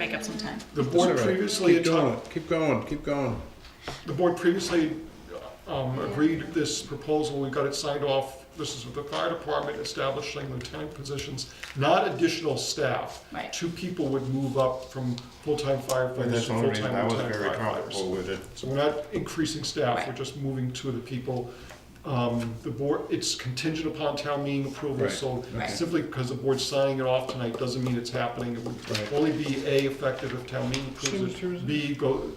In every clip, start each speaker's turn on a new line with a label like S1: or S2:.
S1: make up some time.
S2: The
S3: That's
S2: board
S3: all right.
S2: previously,
S3: Keep going, keep going, keep going.
S2: the board previously um, agreed this proposal, we got it signed off. This is with the fire department establishing lieutenant positions, not additional staff.
S1: Right.
S2: Two people would move up from full-time
S3: And
S2: firefighters
S3: that's
S2: to
S3: the only reason I
S2: full-time
S3: was
S2: lieutenant
S3: very comfortable
S2: firefighters.
S3: with it.
S2: So we're not increasing staff, we're
S1: Right.
S2: just moving two of the people. Um, The board, it's contingent upon town meeting approval,
S3: Right.
S2: so
S1: Right.
S2: simply because the board's signing it off tonight doesn't mean it's happening. It would
S3: Right.
S2: only be A, effective if town meeting approves
S3: Sure, sure.
S2: it, B, go,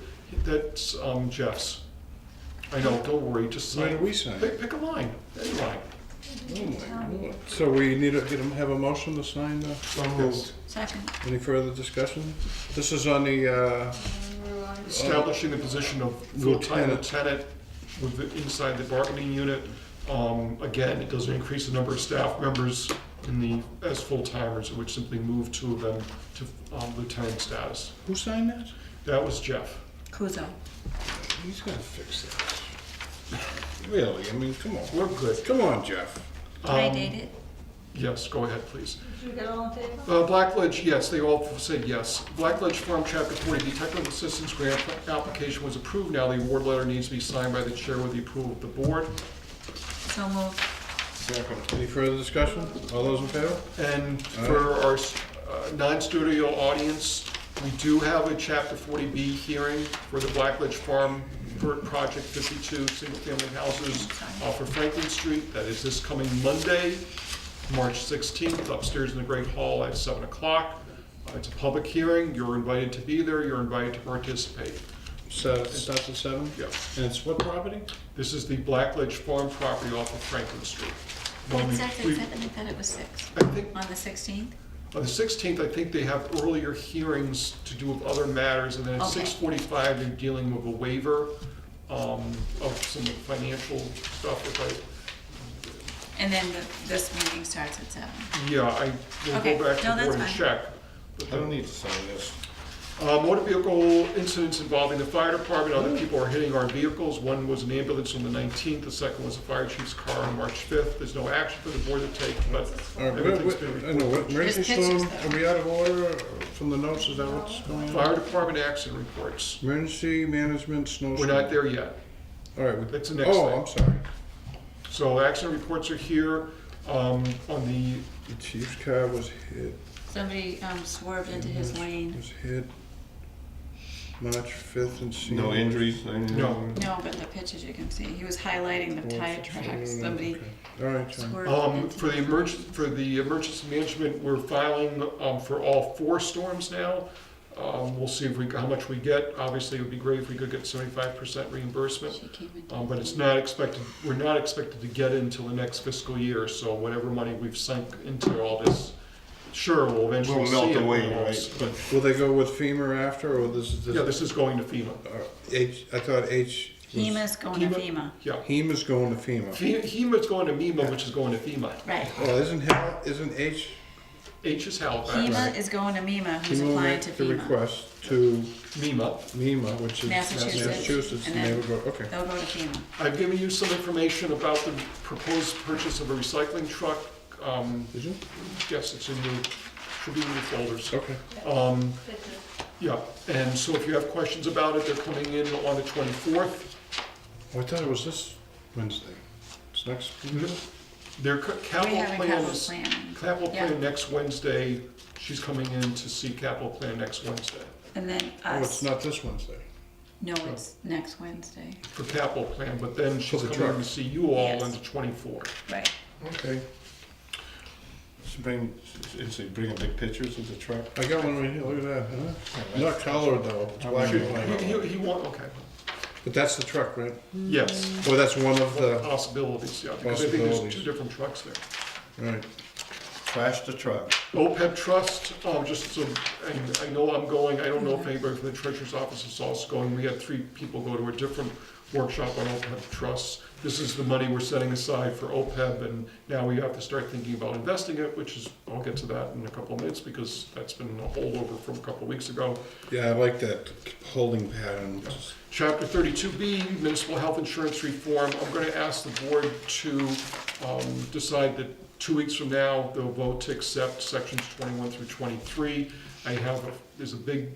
S2: that's um, Jeff's. I know, don't worry, just
S3: Why did
S2: sign.
S3: we sign? it?
S2: Pick, pick a line, any line.
S3: Oh my lord. So we need to get a, have a motion to sign the,
S2: So moved.
S1: Second,
S3: any further discussion? This is on the, uh,
S2: Establishing the position of full-time
S3: Lieutenant.
S2: lieutenant with, the- inside the bargaining unit. Um, Again, it doesn't increase the number of staff members in the, as full-timers, it would simply move two of them to um, lieutenant status.
S3: who signed that?
S2: That was Jeff. Um,
S1: Kuzo.
S3: He's gonna fix that. Really, I mean, come on,
S2: We're good.
S3: come on, Jeff.
S1: Can I
S2: Um,
S1: date it?
S2: Yes, go ahead, please.
S4: Did you get all in favor?
S2: Uh, Blackledge, yes, they all said yes. Blackledge Farm Chapter 40, the technical assistance grant application was approved. Now the award letter needs to be signed by the chair with the approval of the board.
S1: So moved.
S3: Any further discussion? All those in favor?
S2: And for our uh, non-studio audience, we do have a Chapter 40B hearing for the Blackledge Farm for Project 52, single-family houses off of Franklin Street. That is this coming Monday, March 16th, upstairs in the Great Hall at 7 o'clock. Uh, It's a public hearing. You're invited to be there. You're invited to participate.
S3: So, it starts at seven?
S2: Yeah.
S3: And it's what property?
S2: This is the Blackledge Farm property off of Franklin Street. When
S1: It
S2: we-
S1: says
S2: we-
S1: it's seven, I thought it was six.
S2: I think
S1: On the sixteenth?
S2: On the sixteenth, I think they have earlier hearings to do with other matters, and then at
S1: Okay.
S2: six forty-five, they're dealing with a waiver um, of some financial stuff, if
S1: And then the, this meeting starts at seven.
S2: I, yeah, I will
S1: Okay.
S2: go back to
S1: No,
S2: the
S1: that's
S2: board and
S1: fine.
S2: check. But
S3: I
S2: the-
S3: don't need to sign this.
S2: Uh, motor vehicle incidents involving the fire department, other people are hitting our vehicles. One was an ambulance on the nineteenth, the second was a fire chief's car on March fifth. There's no action for the board to take, but
S3: All right, we're-
S2: everything's been
S3: we're- Uh, I know,
S2: reported.
S3: we're- emergency
S1: Just pictures,
S3: storm,
S1: though.
S3: are we out of order from the notes, is that what's going on?
S2: Fire department accident reports,
S3: Emergency management, snow.
S2: we're not there yet.
S3: All right, we-
S2: That's the next
S3: oh,
S2: thing.
S3: I'm sorry.
S2: So action reports are here. Um, On the,
S3: The chief's car was hit,
S1: Somebody, um, swerved into his
S2: Mm-hmm.
S1: lane.
S3: was hit March fifth and seen.
S5: No injuries? anything?
S2: No.
S1: No, but the pictures you can see, he was highlighting the tire tracks. Somebody
S3: All right, John.
S1: swerved
S2: um, for
S1: into.
S2: the emerg, for the emergency management, we're filing um, for all four storms now. Um, We'll see if we, how much we get. Obviously, it would be great if we could get seventy-five percent reimbursement.
S1: She came in.
S2: Um, But it's not expected, we're not expected to get it until the next fiscal year, so whatever money we've sunk into all this, sure, we'll eventually
S5: Will
S2: see it.
S5: melt away,
S2: but-
S5: right?
S2: but-
S3: Will they go with FEMA after, or this is?
S2: Yeah, this is going to FEMA.
S3: uh, H, I thought H. E
S1: HEMA's
S3: was-
S1: going to
S2: Hema-
S1: FEMA.
S2: Yeah.
S3: HEMA's going to FEMA.
S2: Fe- HEMA's going to MEMA, which is going to FEMA.
S1: Right.
S3: Well, isn't Hal, isn't H,
S2: H is Halifax,
S1: HEMA is going to MEMA, who's
S3: FEMA will
S1: applying
S3: E make
S1: to
S3: the
S1: FEMA.
S3: request to
S2: MEMA.
S3: MEMA, which is
S1: Massachusetts,
S3: Massachusetts,
S1: and
S3: and they
S1: then-
S3: will go, okay.
S1: They'll go to FEMA.
S2: I've given you some information about the proposed purchase of a recycling truck. Um,
S3: Did you?
S2: Yes, it's in your, should be in your folders.
S3: Okay.
S2: Um,
S4: Did you?
S2: Yeah, and so if you have questions about it, they're coming in on the 24th.
S3: Oh, I thought it was this Wednesday. It's next. Mm-hmm.
S2: Their ca-
S1: We
S2: capital
S1: have a
S2: plan
S1: capital
S2: is,
S1: plan.
S2: capital
S1: Yeah.
S2: plan next Wednesday. She's coming in to see capital plan next Wednesday
S1: And then
S3: Oh, it's
S1: us.
S3: not this Wednesday.
S1: No, it's
S2: oh.
S1: next Wednesday.
S2: for capital plan, but then she's
S3: the
S2: coming in to
S3: truck.
S2: see you all on
S1: Yes.
S2: the 24th.
S1: Right.
S3: Okay.
S5: It's bring, it's bringing big pictures of the truck.
S3: I got one right here. Look at that. Huh? Not colored though. It's black and
S2: He,
S3: white.
S2: he- he want, okay,
S3: But that's the truck, right?
S1: Mm.
S2: yes,
S3: Well, that's one of the.
S2: possibilities, yeah, because I think there's two
S3: Possibilities.
S2: different trucks there.
S3: Right.
S5: Trash the truck.
S2: OPEB trust, um, just so, I, I know I'm going, I don't know if anybody from the treasurer's office is also going, we had three people go to a different workshop on OPEB trusts. This is the money we're setting aside for OPEB, and now we have to start thinking about investing it, which is, I'll get to that in a couple of minutes, because that's been a holdover from a couple of weeks ago.
S3: Yeah, I like that holding pattern.
S2: Chapter thirty-two B, municipal health insurance reform, I'm gonna ask the board to, um, decide that two weeks from now, they'll vote to accept sections twenty-one through twenty-three. I have, a- there's a big